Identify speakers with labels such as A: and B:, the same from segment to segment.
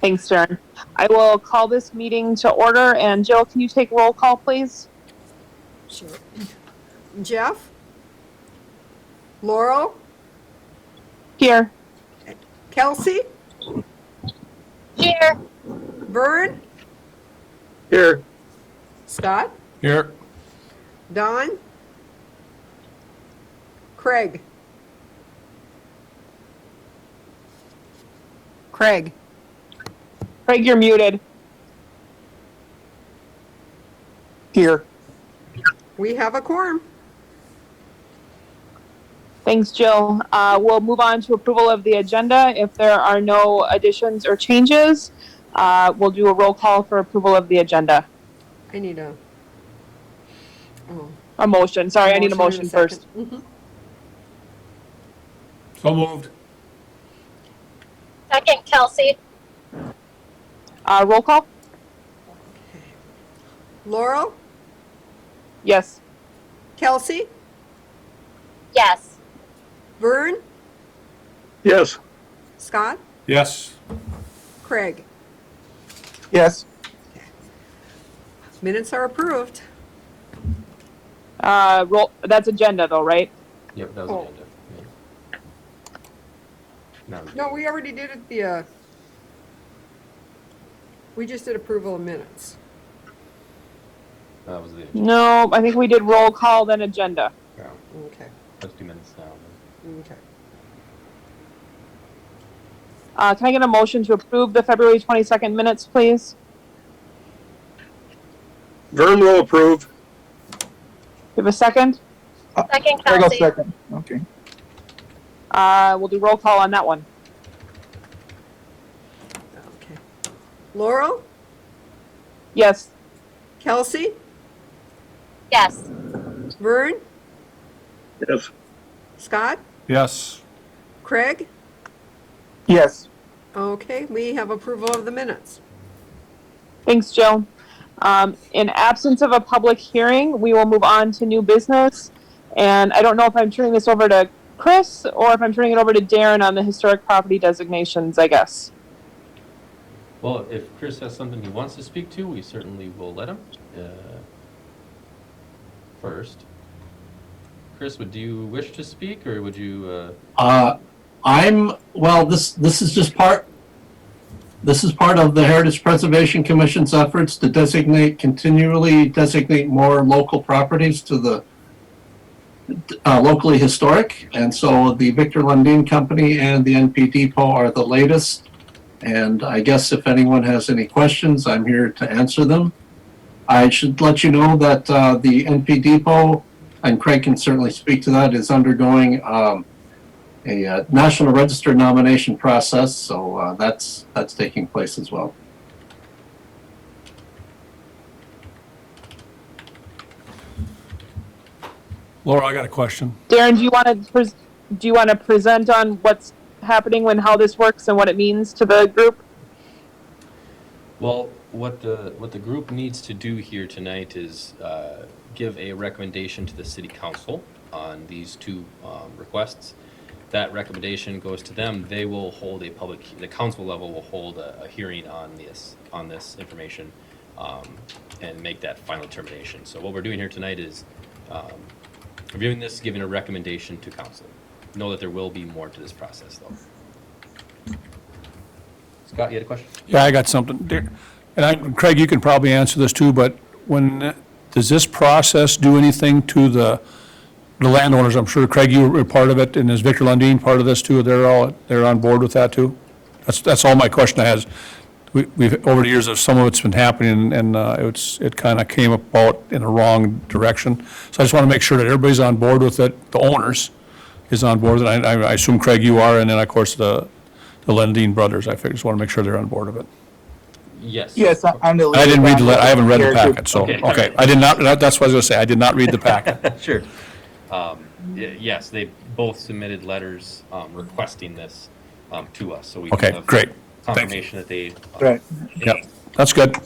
A: Thanks, Darren. I will call this meeting to order, and Jill, can you take roll call, please?
B: Sure. Jeff? Laurel?
A: Here.
B: Kelsey?
A: Here.
B: Vern?
C: Here.
B: Scott?
C: Here.
B: Don? Craig? Craig?
A: Craig, you're muted.
C: Here.
B: We have a quorum.
A: Thanks, Jill. Uh, we'll move on to approval of the agenda. If there are no additions or changes, uh, we'll do a roll call for approval of the agenda.
B: I need a. oh,
A: A motion. Sorry, I need a motion
B: and a
A: first.
B: second. Mhm.
C: So moved.
D: Second, Kelsey.
A: Uh, roll call?
B: Laurel?
A: Yes.
B: Kelsey?
D: Yes.
B: Vern?
C: Yes.
B: Scott?
C: Yes.
B: Craig?
C: Yes.
B: Minutes are approved.
A: Uh, roll, that's agenda though, right?
E: Yep, that was
B: Oh.
E: agenda. Yeah. No,
B: No, we already did it the, uh, we just did approval of minutes.
E: that was the agenda.
A: No, I think we did roll call, then agenda.
E: No,
B: Okay,
E: that's two minutes now.
B: okay.
A: Uh, can I get a motion to approve the February 22nd minutes, please?
C: Vern will approve.
A: Do we have a second?
D: Second, Kelsey.
C: Okay.
A: Uh, we'll do roll call on that one.
B: Okay. Laurel,
A: Yes.
B: Kelsey,
D: Yes.
B: Vern,
C: Yes.
B: Scott,
C: Yes.
B: Craig.
C: Yes.
B: Okay, we have approval of the minutes.
A: Thanks, Jill. Um, in absence of a public hearing, we will move on to new business. And I don't know if I'm turning this over to Chris or if I'm turning it over to Darren on the historic property designations, I guess.
E: Well, if Chris has something he wants to speak to, we certainly will let him. Uh, first, Chris, would you wish to speak, or would you? Uh,
F: Uh, I'm, well, this, this is just part, this is part of the Heritage Preservation Commission's efforts to designate, continually designate more local properties to the uh, locally historic. And so the Victor Lundin Company and the NP Depot are the latest. And I guess if anyone has any questions, I'm here to answer them. I should let you know that uh, the NP Depot, and Craig can certainly speak to that, is undergoing um, a uh, National Register nomination process, so uh, that's that's taking place as well.
G: Laura, I got a question.
A: Darren, do you want to pres do you want to present on what's happening and how this works and what it means to the group?
E: Well, what the, what the group needs to do here tonight is uh, give a recommendation to the city council on these two um, requests. That recommendation goes to them. They will hold a public, the council level will hold a, a hearing on this, on this information um, and make that final determination. So what we're doing here tonight is um, reviewing this, giving a recommendation to council. Know that there will be more to this process, though. Scott, you had a question?
G: Yeah, I got something. There- And I, Craig, you can probably answer this too, but when, does this process do anything to the, the landowners? I'm sure, Craig, you were part of it, and is Victor Lundin part of this too? They're all, they're on board with that too? That's, that's all my question I has. We, we've, over the years, there's some of it's been happening, and uh, it's, it kind of came about in the wrong direction. So I just want to make sure that everybody's on board with it, the owners is on board, and I, I assume, Craig, you are, and then, of course, the, the Lundin brothers, I fig- just want to make sure they're on board of it.
E: Yes.
C: Yes, I- I'm the.
G: I didn't read the, le- I haven't read the
C: Here, here.
G: packet, so,
E: Okay.
G: okay, I did not, that- that's what I was gonna say, I did not read the packet.
E: Sure. Um, y- yes, they both submitted letters, um, requesting this, um, to us, so we. can
G: Okay,
E: have
G: great. Thank you.
E: Confirmation that they. uh,
C: Right.
G: Yep, that's good.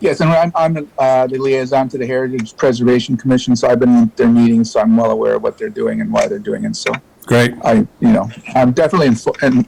C: Yes, and I'm, I'm uh, the liaison to the Heritage Preservation Commission, so I've been in their meetings, so I'm well aware of what they're doing and why they're doing it. So
G: Great,
C: I, you know, I'm definitely in,